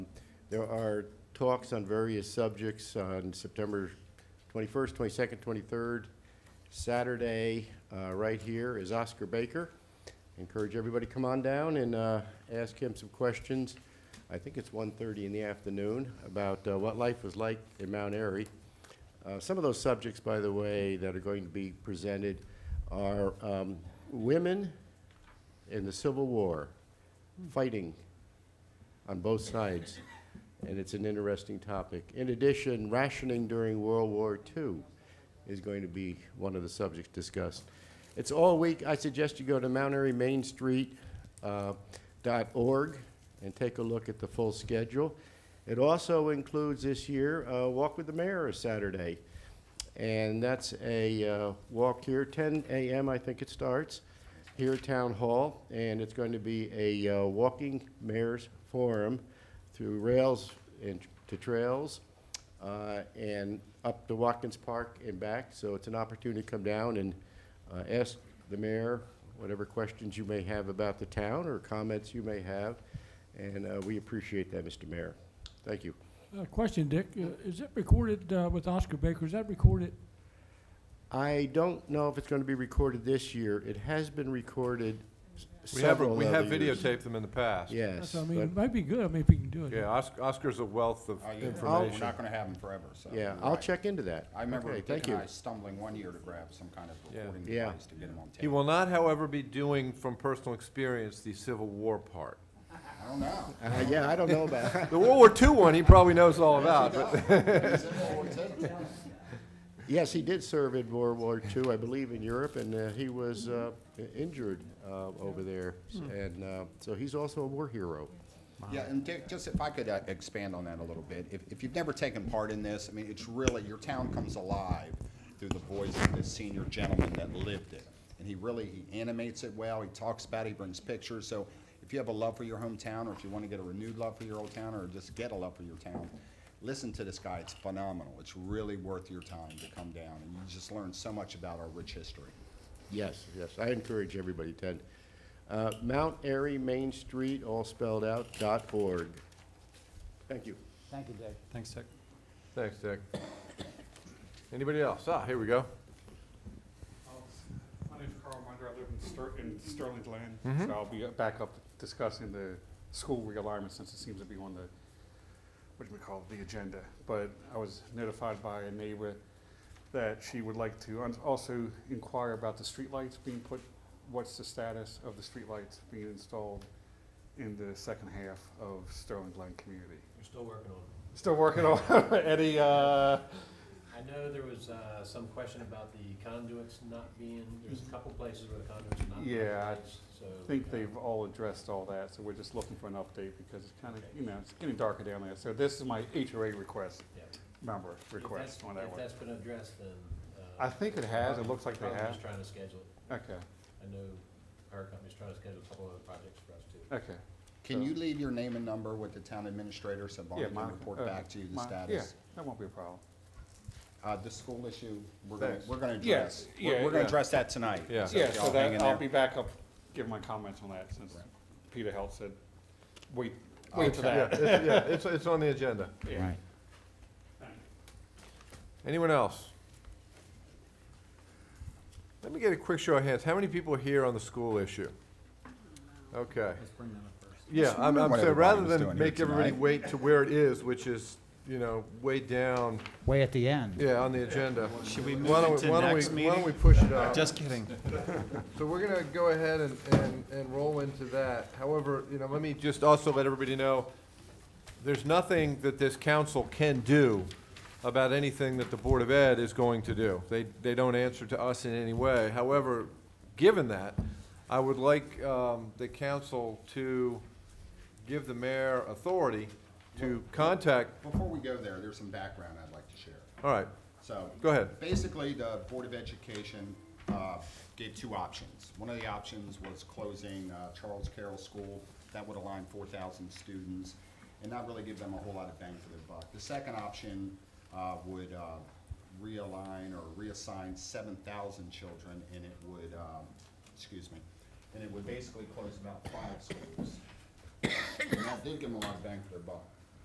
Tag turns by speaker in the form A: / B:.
A: There are talks on various subjects on September 21st, 22nd, 23rd. Saturday, uh, right here, is Oscar Baker. Encourage everybody to come on down and uh, ask him some questions. I think it's 1:30 in the afternoon, about uh, what life was like in Mount Airy. Uh, Some of those subjects, by the way, that are going to be presented are um, women in the Civil War, fighting on both sides, and it's an interesting topic. In addition, rationing during World War II is going to be one of the subjects discussed. It's all week. I suggest you go to mountairymainstreet.org uh, and take a look at the full schedule. It also includes this year uh, Walk with the Mayor is Saturday, and that's a uh, walk here, 10 a.m. I think it starts here at Town Hall, and it's going to be a uh, walking mayor's forum through rails and to trails uh, and up to Watkins Park and back. So it's an opportunity to come down and uh, ask the mayor whatever questions you may have about the town or comments you may have, and uh, we appreciate that, Mr. Mayor. Thank you.
B: Uh, Question, Dick, Uh, is it recorded uh, with Oscar Baker, is that recorded?
A: I don't know if it's going to be recorded this year. It has been recorded s-
C: We have,
A: several
C: we have
A: other years.
C: videotaped them in the past.
A: Yes.
B: That's, I mean,
A: but-
B: it might be good, I mean, if we can do it.
C: Yeah, Os- Oscar's a wealth of
D: Oh, yeah, We're
C: information.
D: not gonna have them forever, so.
A: Yeah,
D: you're
A: I'll
D: right.
A: check into that.
D: I remember
A: Okay,
D: Dick
A: thank
D: and
A: you.
D: I stumbling one year to grab some kind of
C: Yeah.
D: recording
A: Yeah.
D: device to get them on tape.
C: He will not, however, be doing from personal experience the Civil War part.
D: I don't know.
A: Uh, Yeah, I don't know about
C: The World War II one, he probably knows all about, but
D: Is it what we did?
A: Yes, he did serve in World War II, I believe, in Europe, and uh, he was uh, i- injured uh, over there. And uh, so he's also a war hero.
D: Yeah, and Dick, just if I could uh, expand on that a little bit, if, if you've never taken part in this, I mean, it's really, your town comes alive through the voice of this senior gentleman that lived it. And he really, he animates it well, he talks about it, he brings pictures, so if you have a love for your hometown, or if you want to get a renewed love for your old town, or just get a love for your town, listen to this guy, it's phenomenal, it's really worth your time to come down, and you just learn so much about our rich history.
A: Yes, yes, I encourage everybody to attend. Uh, Mount Airy Main Street, all spelled out, dot org. Thank you.
E: Thank you, Dick.
F: Thanks, Dick.
C: Thanks, Dick. Anybody else? Ah, here we go.
G: Oh, My name's Carl Munder, I live in Ster- in Sterling Glen, so I'll be back up discussing the school realignment since it seems to be on the, what do we call it, the agenda. But I was notified by a neighbor that she would like to uns- also inquire about the streetlights being put, what's the status of the streetlights being installed in the second half of Sterling Glen community?
F: We're still working on it.
G: Still working on any, uh,
F: I know there was uh, some question about the conduits not being, there's a couple places where the conduits are not. being
G: Yeah, I
F: placed, so.
G: I think
F: uh,
G: they've all addressed all that, so we're just looking for an update because it's kind of, you know, it's getting darker down there. So this is my HOA request,
F: yeah.
G: member
F: If
G: request
F: that's-
G: on that
F: If
G: one.
F: that's been addressed, then. uh,
G: I think it has, it looks like they
F: probably
G: have.
F: just trying to schedule it.
G: Okay,
F: I know our company's trying to schedule a couple of other projects for us too.
G: okay.
D: Can
G: So-
D: you leave your name and number with the town administrator so Bonnie
G: Yeah,
D: can
G: my- uh,
D: report back to you the
G: my-
D: status?
G: Yeah, that won't be a problem.
D: Uh, the school issue, we're gonna,
C: Thanks.
D: we're gonna
G: Yeah,
D: address, we're
G: yeah,
D: we're gonna
G: yeah.
D: address that tonight.
C: Yeah.
D: So
G: Yeah,
D: if
G: so
D: y'all hang in
G: that, I'll
D: there.
G: be back up, give my comments on that since
D: Right.
G: Peter Helt said, wait, wait for that.
C: It's- Yeah, it's, it's on the agenda.
G: Yeah.
C: Anyone else? Let me get a quick show of hands. How many people are here on the school issue? Okay.
F: Let's bring that up first.
C: Yeah, I'm,
D: wondering
C: I'm
D: what
C: saying,
D: everybody
C: rather
D: was
C: than
D: doing here
C: make everybody
D: tonight.
C: wait to where it is, which is, you know, way down,
E: Way at the end.
C: yeah, on the agenda.
H: Should we
C: Why
H: move
C: don't we-
H: it to
C: why don't
H: next
C: we- Why don't we
H: meeting?
C: push it up?
H: Just kidding.
C: So we're gonna go ahead and, and, and roll into that. However, you know, let me just also let everybody know, there's nothing that this council can do about anything that the Board of Ed is going to do. They, they don't answer to us in any way. However, given that, I would like, um, the council to give the mayor authority to contact,
D: Before we go there, there's some background I'd like to share.
C: all right,
D: So.
C: Go ahead.
D: Basically, the Board of Education uh, gave two options. One of the options was closing uh, Charles Carroll School. That would align four thousand students and not really give them a whole lot of bang for their buck. The second option uh, would uh, realign or reassign seven thousand children and it would, um, excuse me, and it would basically close about five schools. And that did give them a lot of bang for their buck.